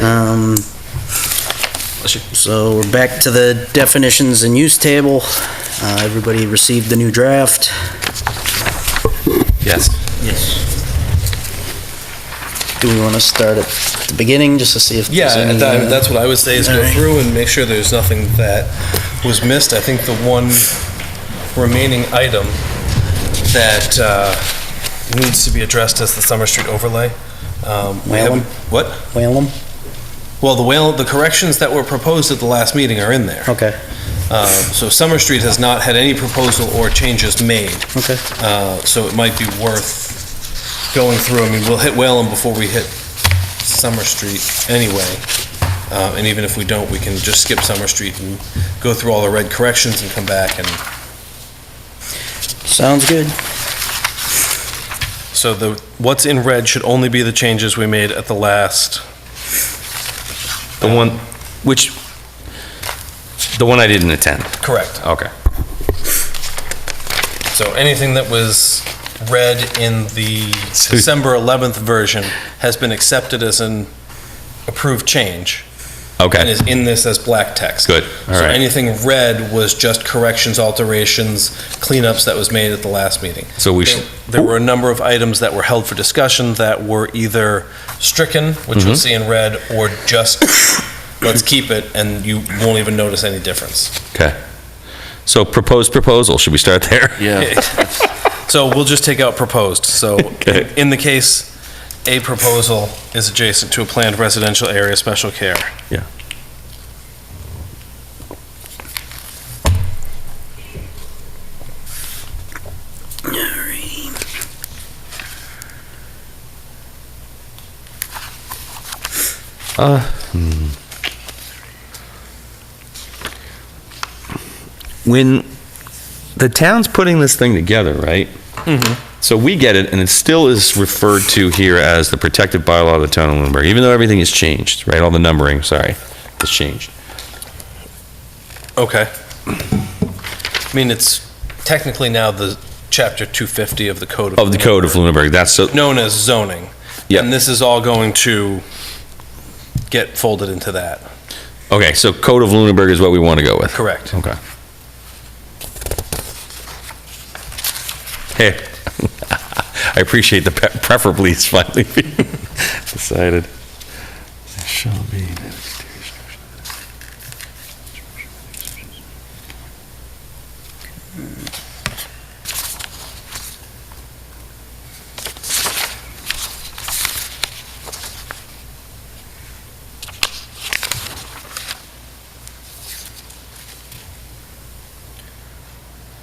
Um, So we're back to the definitions and use table. Uh, Everybody received the new draft? Yes. Yes. Do we want to start at the beginning, just to see if Yeah, there's any? that- uh, that's what I would say is go Alright. through and make sure there's nothing that was missed. I think the one remaining item that uh, needs to be addressed is the Summer Street overlay. Um, we Whalen? haven't- What? Whalum? Well, the whale, the corrections that were proposed at the last meeting are in there. Okay, Uh, So Summer Street has not had any proposal or changes made. okay. Uh, So it might be worth going through. I mean, we'll hit Whalen before we hit Summer Street anyway. Uh, And even if we don't, we can just skip Summer Street and go through all the red corrections and come back. And Sounds good. so the, what's in red should only be the changes we made at the last. The one, which, the one I didn't attend, Correct. okay. So anything that was read in the December 11th version has been accepted as an approved change and Okay, is in this as black text. good, all So right. anything red was just corrections, alterations, cleanups that was made at the last meeting. So we should, There were a number of items that were held for discussion that were either stricken, which Mm-hmm. you'll see in red, or just, let's keep it, and you won't even notice any difference. okay. So proposed proposal, should we start there? Yeah, So we'll just take out proposed. So Okay. in the case, a proposal is adjacent to a planned residential area special care. Yeah. Uh, hmm. When the town's putting this thing together, right? Mm-hmm. So we get it, and it still is referred to here as the protective bylaw of the town of Lunenburg, even though everything has changed, right? All the numbering, sorry, has changed. Okay. I mean, it's technically now the chapter 250 of the code of. Of the code of Lunenburg, that's, so- Known as zoning. Yeah. And this is all going to get folded into that. okay, so code of Lunenburg is what we want to go with. Correct. Okay. Hey, I appreciate the pe- preferably is finally being decided. There shall be no exterior structure.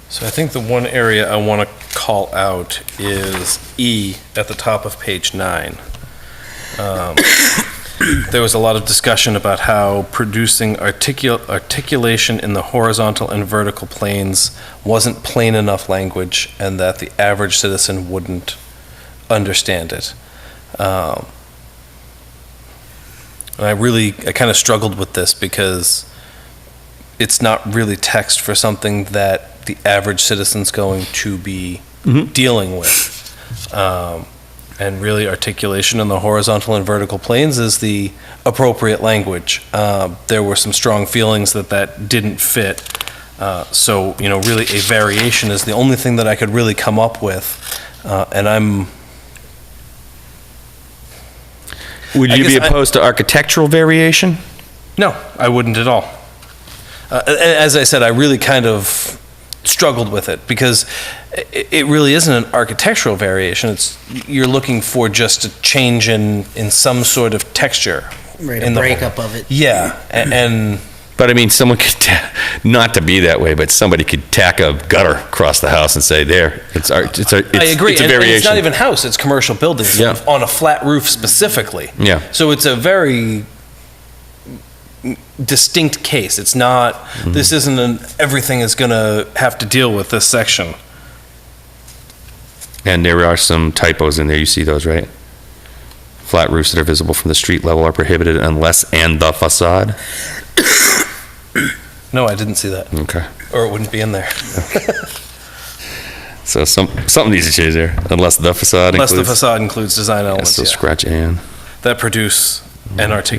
So I think the one area I want to call out is E at the top of page nine. Um, There was a lot of discussion about how producing articul- articulation in the horizontal and vertical planes wasn't plain enough language and that the average citizen wouldn't understand it. Um, And I really, I kind of struggled with this because it's not really text for something that the average citizen's going to be Mhm. dealing with. Um, and really, articulation in the horizontal and vertical planes is the appropriate language. Uh, there were some strong feelings that that didn't fit. Uh, so, you know, really, a variation is the only thing that I could really come up with. Uh, and I'm Would I you be guess I- opposed to architectural variation? No, I wouldn't at all. Uh, a- a- as I said, I really kind of struggled with it because i- it really isn't an architectural variation. It's you're looking for just a change in in some sort of texture. Right, in a the- breakup of it. Yeah, a- and But I mean, someone could, ta- not to be that way, but somebody could tack a gutter across the house and say, there, it's art, it's a, it's I agree. it's a and, and it's variation. not even house; it's commercial buildings Yeah. on a flat roof specifically. Yeah. So it's a very distinct case. It's not. Mm-hmm. This isn't an everything is going to have to deal with this section. And there are some typos in there, you see those, right? Flat roofs that are visible from the street level are prohibited unless and the facade. No, I didn't see that, Okay, or it wouldn't be in there. so some, something needs to change there, unless the facade Unless the includes. facade includes design Yeah, elements So yeah, scratch and. that produce an articulation.